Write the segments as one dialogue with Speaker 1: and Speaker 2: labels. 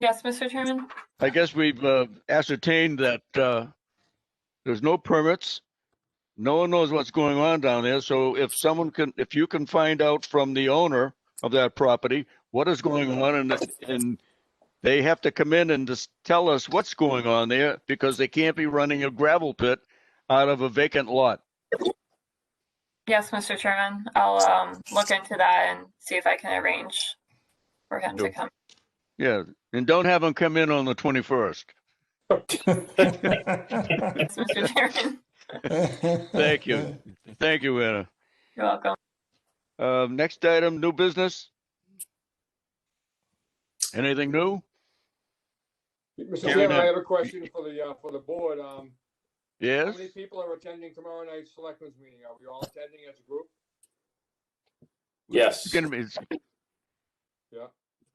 Speaker 1: Yes, Mr. Chairman?
Speaker 2: I guess we've uh, ascertained that uh, there's no permits. No one knows what's going on down there. So if someone can, if you can find out from the owner of that property, what is going on and, and they have to come in and just tell us what's going on there because they can't be running a gravel pit out of a vacant lot.
Speaker 1: Yes, Mr. Chairman. I'll um look into that and see if I can arrange for him to
Speaker 2: Sure.
Speaker 1: come.
Speaker 2: Yeah. And don't have them come in on the 21st.
Speaker 1: Yes, Mr. Chairman.
Speaker 2: Thank you. Thank you, Anna.
Speaker 1: You're welcome.
Speaker 2: Uh, next item, new business. Anything new? Gary,
Speaker 3: Mr. Chairman,
Speaker 2: no.
Speaker 3: I have a question for the, uh, for the board. Um, how
Speaker 2: Yes,
Speaker 3: many people are attending tomorrow night's selectmen's meeting? Are we all attending as a group?
Speaker 4: Yes.
Speaker 2: it's gonna be. it's-
Speaker 3: Yeah.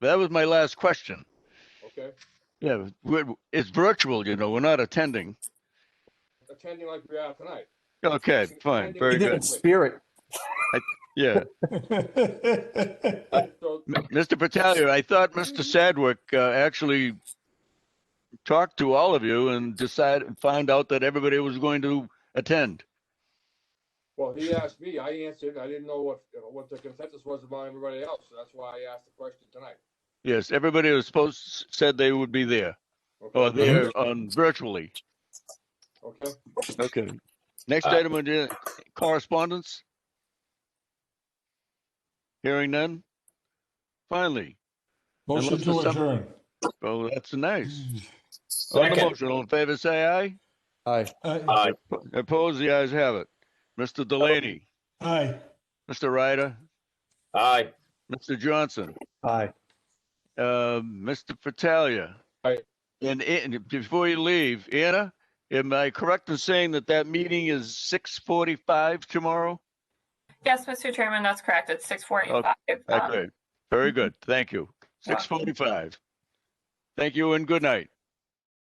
Speaker 2: That was my last question.
Speaker 3: Okay,
Speaker 2: Yeah, we're, it's virtual, you know, we're not attending.
Speaker 3: attending like we are tonight.
Speaker 2: Okay, fine,
Speaker 3: Attending
Speaker 2: very
Speaker 5: He did
Speaker 2: good.
Speaker 5: in spirit.
Speaker 2: Yeah,
Speaker 3: So,
Speaker 2: M- Mr. Battaglia, I thought Mr. Sadwick uh, actually talked to all of you and decided, found out that everybody was going to attend.
Speaker 3: well, he asked me, I answered, I didn't know what, what the consensus was about everybody else, so that's why I asked the question tonight.
Speaker 2: Yes, everybody was supposed, said they would be there, or
Speaker 3: Okay,
Speaker 2: there on virtually.
Speaker 3: okay,
Speaker 2: Okay. Next
Speaker 4: Uh,
Speaker 2: item on the correspondence. Hearing none. Finally,
Speaker 5: Motion
Speaker 2: Unless
Speaker 5: to
Speaker 2: there's some-
Speaker 5: adjourn.
Speaker 2: oh, that's nice. On the
Speaker 4: Second.
Speaker 2: motion, all in favor, say aye.
Speaker 5: Aye. Aye.
Speaker 4: Aye.
Speaker 2: Opposed, the ayes have it. Mr. Delaney,
Speaker 5: Aye.
Speaker 2: Mr. Ryder,
Speaker 4: Aye.
Speaker 2: Mr. Johnson,
Speaker 5: Aye.
Speaker 2: uh, Mr. Fattalia.
Speaker 3: Aye.
Speaker 2: And, and before you leave, Anna, am I correct in saying that that meeting is six forty-five tomorrow?
Speaker 1: Yes, Mr. Chairman, that's correct. It's six forty-five.
Speaker 2: Okay, very good. Thank you. Six forty-five. Thank you and good night.